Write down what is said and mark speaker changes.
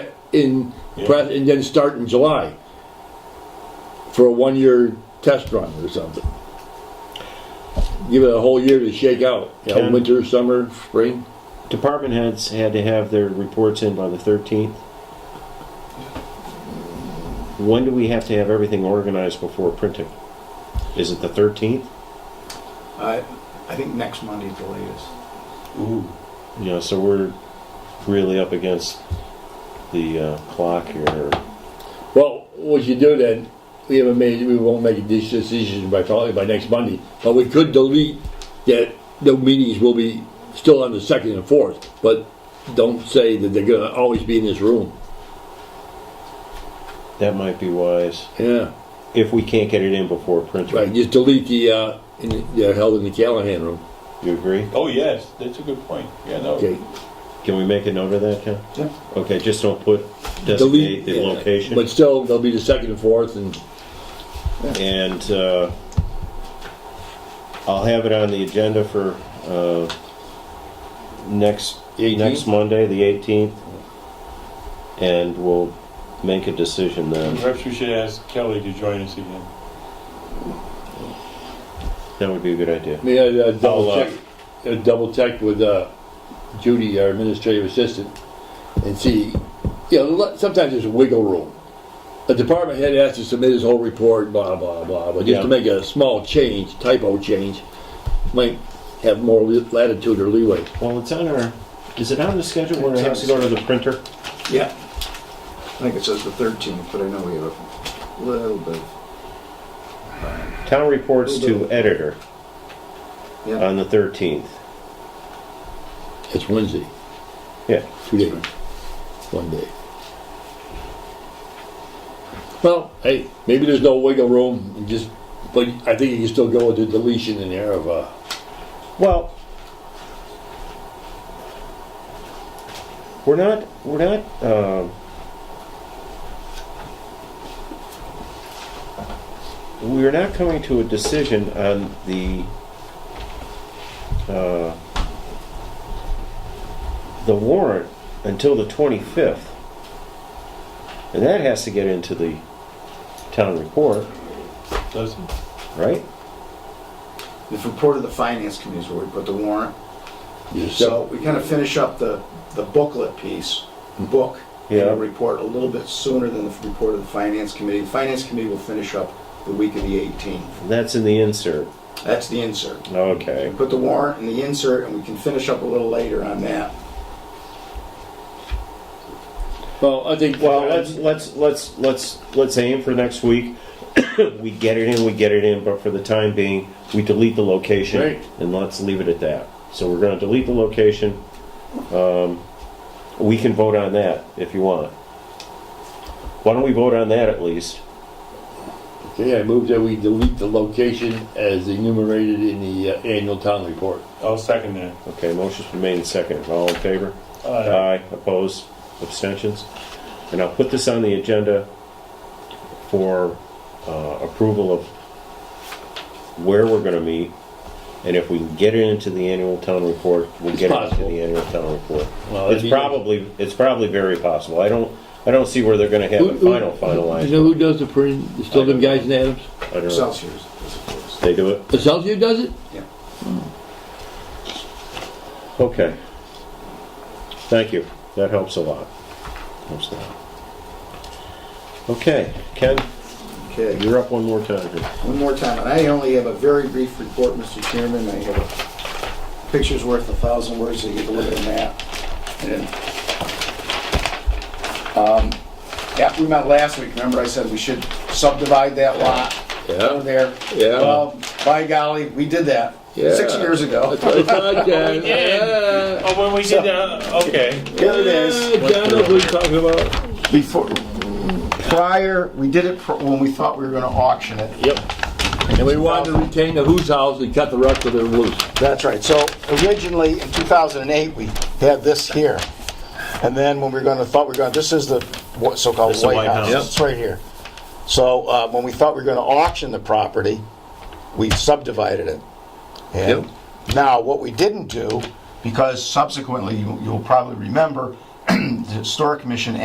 Speaker 1: in,
Speaker 2: Yeah.
Speaker 1: pre- and then start in July for a one-year test run or something. Give it a whole year to shake out, you know,
Speaker 2: Can-
Speaker 1: winter, summer, spring.
Speaker 2: Department heads had to have their reports in by the 13th. When do we have to have everything organized before printing? Is it the 13th?
Speaker 3: I, I think next Monday's the latest.
Speaker 4: Ooh,
Speaker 2: You know, so we're really up against the uh, clock here.
Speaker 1: Well, what you do then, we haven't made, we won't make a dec- decision by probably by next Monday, but we could delete that the meetings will be still on the second and fourth, but don't say that they're gonna always be in this room.
Speaker 2: That might be wise
Speaker 1: Yeah,
Speaker 2: if we can't get it in before printing.
Speaker 1: right, just delete the, uh, in, the- they're held in the Callahan room,
Speaker 2: You agree?
Speaker 4: oh yes, that's a good point, yeah, no.
Speaker 1: okay?
Speaker 2: Can we make a note of that, Ken?
Speaker 3: Yeah.
Speaker 2: Okay, just don't put designate
Speaker 1: Delete
Speaker 2: the
Speaker 1: yeah,
Speaker 2: location.
Speaker 1: But still, they'll be the second and fourth and,
Speaker 2: And uh, I'll have it on the agenda for uh, next, eh,
Speaker 1: 18th?
Speaker 2: next Monday, the 18th. And we'll make a decision then.
Speaker 4: Perhaps we should ask Kelly to join us again.
Speaker 2: That would be a good idea.
Speaker 1: may I uh, double
Speaker 2: I'll, uh,
Speaker 1: check, uh, double check with, uh, Judy, our administrative assistant, and see, you know, let- sometimes there's wiggle room. A department head has to submit his whole report, blah, blah, blah, but just
Speaker 2: Yeah.
Speaker 1: to make a small change, typo change, might have more li- latitude or leeway.
Speaker 2: Well, it's on our, is it on the schedule where it has to go to the printer?
Speaker 3: Yeah. I think it says the 13th, but I know we have a little bit.
Speaker 2: Town reports to editor
Speaker 3: Yeah.
Speaker 2: on the 13th.
Speaker 1: It's Wednesday,
Speaker 2: Yeah,
Speaker 1: two days, one day. Well, hey, maybe there's no wiggle room, and just, but I think you can still go with the deletion in there of, uh,
Speaker 2: well, we're not, we're not, um, we're not coming to a decision on the, uh, the warrant until the 25th. And that has to get into the town report,
Speaker 4: Does it?
Speaker 2: right?
Speaker 3: The report of the finance committee is where we put the warrant.
Speaker 1: your
Speaker 3: So we kind of finish up the, the booklet piece, book, and
Speaker 2: Yeah.
Speaker 3: the report a little bit sooner than the report of the finance committee. The finance committee will finish up the week of the 18th.
Speaker 2: That's in the insert.
Speaker 3: That's the insert.
Speaker 2: Okay.
Speaker 3: We put the warrant in the insert, and we can finish up a little later on that.
Speaker 1: Well, I think.
Speaker 2: Well, let's let's let's let's let's aim for next week. we get it in, we get it in, but for the time being, we delete the location
Speaker 1: Right.
Speaker 2: and let's leave it at that. So we're going to delete the location. Um, we can vote on that if you want. Why don't we vote on that at least?
Speaker 1: Okay, I move that we delete the location as enumerated in the uh, annual town report.
Speaker 4: I'll second that.
Speaker 2: Okay, motion's been made and seconded. All in favor?
Speaker 4: Uh,
Speaker 2: Aye, opposed, abstentions. And I'll put this on the agenda for uh, approval of where we're gonna meet. And if we can get it into the annual town report, we'll
Speaker 1: It's
Speaker 2: get it into
Speaker 1: possible.
Speaker 2: the annual town report.
Speaker 1: Well, that'd
Speaker 2: It's
Speaker 1: be-
Speaker 2: probably, it's probably very possible. I don't, I don't see where they're gonna have it final,
Speaker 1: You know
Speaker 2: finalized.
Speaker 1: who does the print, It's still them guys in Adams?
Speaker 2: I don't know.
Speaker 3: Celsius. is the first.
Speaker 2: They do it?
Speaker 1: Excelsior does it?
Speaker 2: Okay. Thank you. That helps a lot. Helps a lot. Okay, Ken,
Speaker 3: Okay.
Speaker 2: you're up one more time here.
Speaker 3: One more time, and I only have a very brief report, Mr. Chairman. I have a picture's worth a thousand words, so you can look at a map. And, um, After we met last week, remember I said we should subdivide that lot over there?
Speaker 1: Yeah.
Speaker 3: Well, by golly, we did that, six
Speaker 1: Yeah.
Speaker 3: years ago.
Speaker 1: That's what I thought, John. Yeah.
Speaker 4: Oh, when we did that, okay.
Speaker 3: Here it is.
Speaker 1: Yeah, Uh, John knows what he's talking about.
Speaker 3: Before, prior, we did it pr- when we thought we were gonna auction it.
Speaker 1: Yep. And we wanted to retain the who's house and cut the rest of it loose.
Speaker 3: That's right. So originally, in 2008, we had this here. And then when we were gonna, thought we were gonna, this is the what- so-called
Speaker 2: This is the
Speaker 3: White
Speaker 2: White
Speaker 3: House.
Speaker 2: House.
Speaker 3: It's right here. So uh, when we thought we were gonna auction the property, we subdivided it. And now, what we didn't do, because subsequently, you- you'll probably remember, the Historic Commission